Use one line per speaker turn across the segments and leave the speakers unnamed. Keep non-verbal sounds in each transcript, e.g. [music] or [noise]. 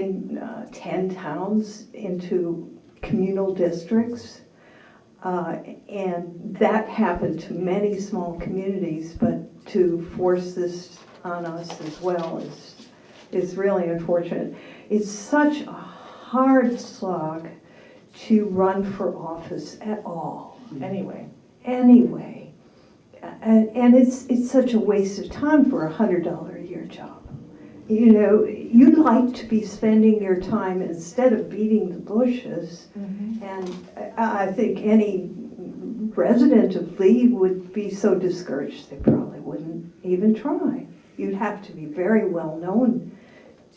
in uh, 10 towns into communal districts. Uh, And that happened to many small communities, but to force this on us as well is, is really unfortunate. It's such a hard slog to run for office at all,
Anyway,
anyway. And, and it's, it's such a waste of time for a hundred dollar a year job. You know, you'd like to be spending your time instead of beating the bushes. And I, I think any resident of Lee would be so discouraged, they probably wouldn't even try. You'd have to be very well known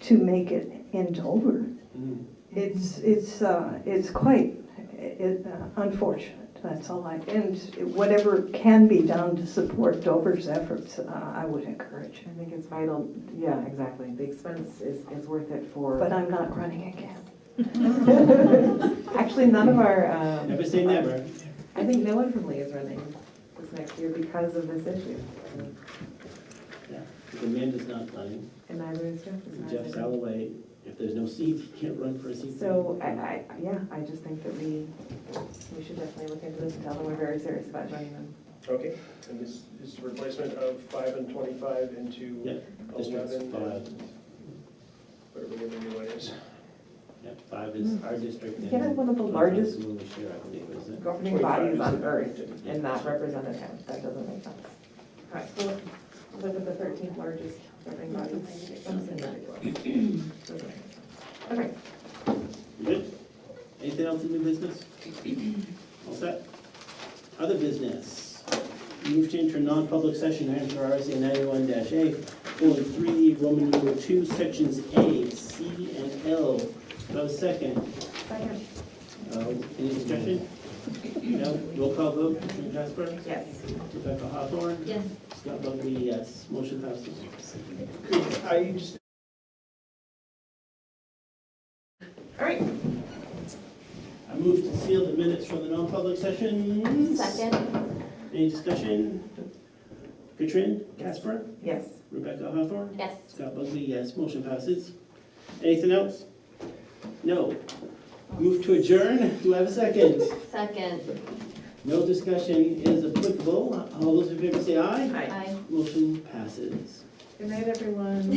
to make it in Dover.
Mm.
It's, it's, uh, it's quite it- uh, unfortunate, that's all I, and whatever can be done to support Dover's efforts, uh, I would encourage.
I think it's vital, yeah, exactly, the expense is, is worth it
But
for.
I'm not running again.
[laughs] Actually, none of our, um.
Never say never.
I think no one from Lee is running this next year because of this issue,
If Amanda's not running,
and neither is Jeff. as far as I
Jeff
know.
Salloway, if there's no seat, he can't run for a seat.
So I, I, yeah, I just think that we, we should definitely look into this and tell them we're very serious about joining them.
Okay, and this is replacement of five and twenty-five into
Yeah, districts
eleven
five.
and whatever the other new one is.
Yeah, Five is our district.
Yeah,
and
one of the
Conference
largest-
Will we share, I believe, is it?
Governing bodies
25 is
on
the-
earth and not represented him, that doesn't make sense. All right, so look at the thirteenth largest governing body. Okay,
You Good. Anything else in new business? All set? Other business. Move to enter non-public session items for RSA ninety-one dash A, colon three, Roman numeral two, sections A, C, and L. Do I have a second?
second,
Uh, Any discussion? No? Roll call vote, Commissioner Casper?
yes.
Rebecca Hawthorne? Yes. Scott Buckley, yes. Motion passes.
I just,
All right,
I move to seal the minutes from the non-public session.
Second?
Any discussion? Katrin, Casper,
yes.
Rebecca Hawthorne?
Yes.
Scott Buckley, yes. Motion passes. Anything else? No. Move to adjourn. Do I have a second?
Second.
No discussion is applicable. All those in favor say aye.
Hi.
Aye.
Motion passes.
Good night, everyone.